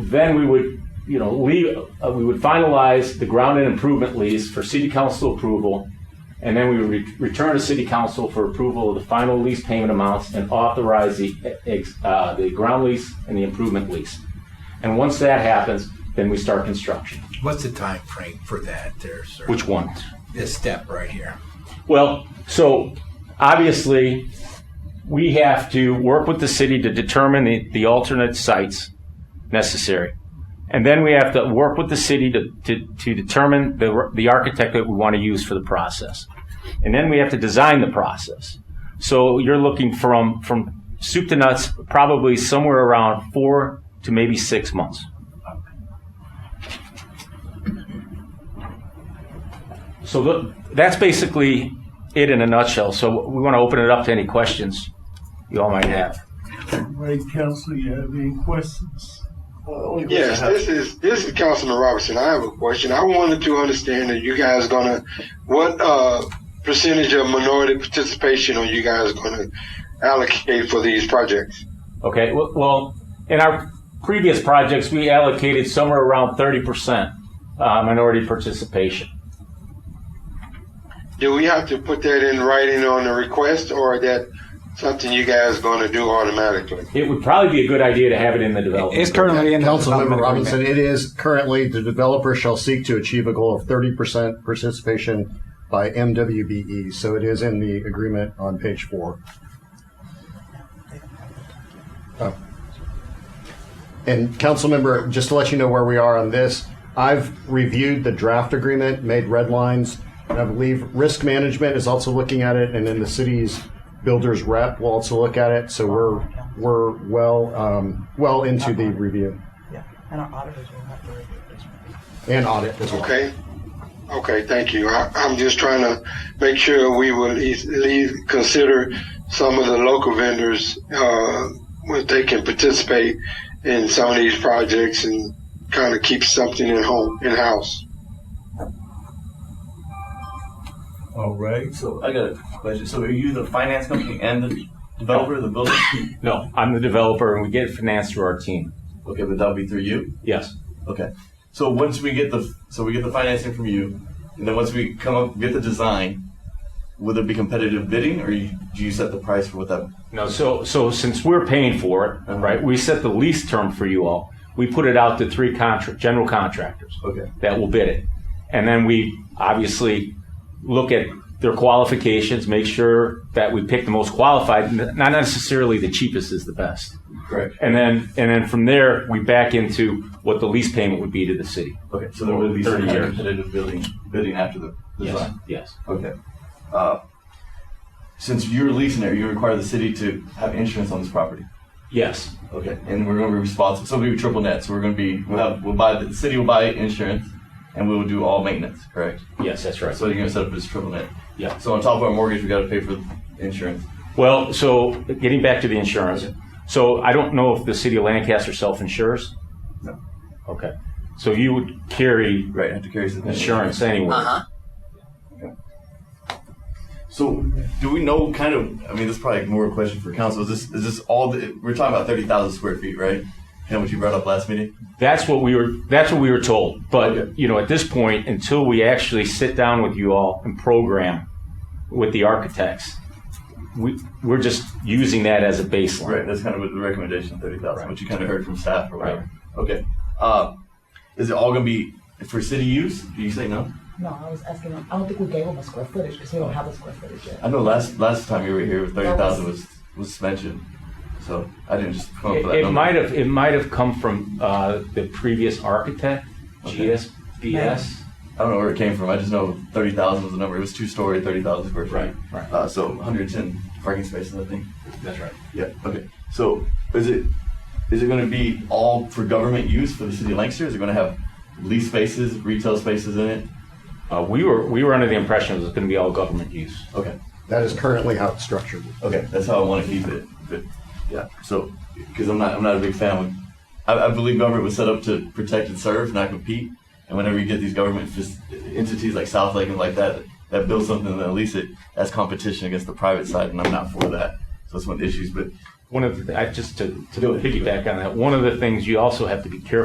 Then we would, you know, leave, uh, we would finalize the ground and improvement lease for city council approval. And then we would re- return to city council for approval of the final lease payment amounts and authorize the, ex- uh, the ground lease and the improvement lease. And once that happens, then we start construction. What's the time frame for that there, sir? Which one? This step right here. Well, so obviously, we have to work with the city to determine the, the alternate sites necessary. And then we have to work with the city to, to, to determine the, the architect that we want to use for the process. And then we have to design the process. So you're looking from, from soup to nuts, probably somewhere around four to maybe six months. So tho- that's basically it in a nutshell. So we want to open it up to any questions you all might have. Right, council, you have any questions? Yes, this is this is Councilman Robertson. I have a question. I wanted to understand that you guys gonna what uh, percentage of minority participation are you guys gonna allocate for these projects? Okay, w- well, in our previous projects, we allocated somewhere around 30% uh, minority participation. Do we have to put that in writing on the request, or that something you guys gonna do automatically? It would probably be a good idea to have it in the It's development. currently in the Councilmember development Robinson, agreement. it is currently, the developer shall seek to achieve a goal of thirty percent participation by MWBE, E. so it is in the agreement on page four. Oh. And Councilmember, just to let you know where we are on this, I've reviewed the draft agreement, made red lines, and I believe risk management is also looking at it, and then the city's builders rep will also look at it, so we're, we're well, um, well into the review. Yeah, and our auditors will have to review this one. and audit as well. Okay. Okay, thank you. I, I'm just trying to make sure we will e, at least- at least consider some of the local vendors, uh, if they can participate in some of these projects and kind of keep something at home, in-house. All right, So I got a question. So are you the finance company and the developer of the building? No, I'm the developer and we get it financed through our team. Okay, but that'll be through you. Yes. Okay. So once we get the so we get the financing from you, and then once we come up get the design, will there be competitive bidding, or you, do you set the price for what that? No, so, so since we're paying for it, right, we set the lease term for you all. We put it out to three contract, general contractors. Okay. that will bid it. And then we obviously look at their qualifications, make sure that we pick the most qualified, n- not necessarily the cheapest is the best. Correct. And then, and then from there, we back into what the lease payment would be to the city. Okay. So there will be some 30 kind of years. competitive bidding bidding after the design. Yes. Okay. Uh, since you're leasing it, you require the city to have insurance on this property. Yes. Okay, and we're going to be responsible. So we'll be triple net. So we're going to be we'll have we'll buy the city will buy insurance, and we will do all maintenance. Correct. Yes, that's right. So you're going to set up this triple net. Yeah. So on top of our mortgage, we got to pay for insurance. Well, so getting back to the insurance. So I don't know if the city of Lancaster self-insures. No. Okay. So you would carry Right. I have to carry some insurance anyway. So do we know kind of? I mean, this is probably more a question for council. Is this is this all? The, we're talking about thirty thousand square feet, right? Kind of what you brought up last meeting. That's what we were. That's what we were told. But Okay. you know, at this point, until we actually sit down with you all and program with the architects, we we're just using that as a baseline. Right. That's kind of what the recommendation, thirty thousand. Right. What you kind of heard from staff or Right. whatever. Okay. Uh, is it all going to be for city use? Do you say no? No, I was asking, I don't think we gave them a square footage because we don't have a square footage yet. I know last last time you were here, thirty thousand was was mentioned, so I didn't just come up with It, that it number. might have. It might have come from uh, the previous architect, Okay. GSBS. I don't know where it came from. I just know thirty thousand was the number. It was two story, thirty thousand square feet. Right, right. Uh, so one hundred ten parking spaces, I think. That's right. Yeah. Okay. So is it is it going to be all for government use for the city of Lancaster? Is it going to have lease spaces, retail spaces in it? Uh, we were we were under the impression it was going to be all government use. Okay. That is currently how it's structured. Okay, that's how I want to keep it. But yeah, so because I'm not, I'm not a big fan. Of, I, I believe government was set up to protect and serve, not compete. And whenever you get these government fis- entities like South Lake and like that that build something and lease it, that's competition against the private side, and I'm not for that. So that's one of the issues. But One of the, I, just to, to Do it. piggyback on that, one of the things you also have to be careful.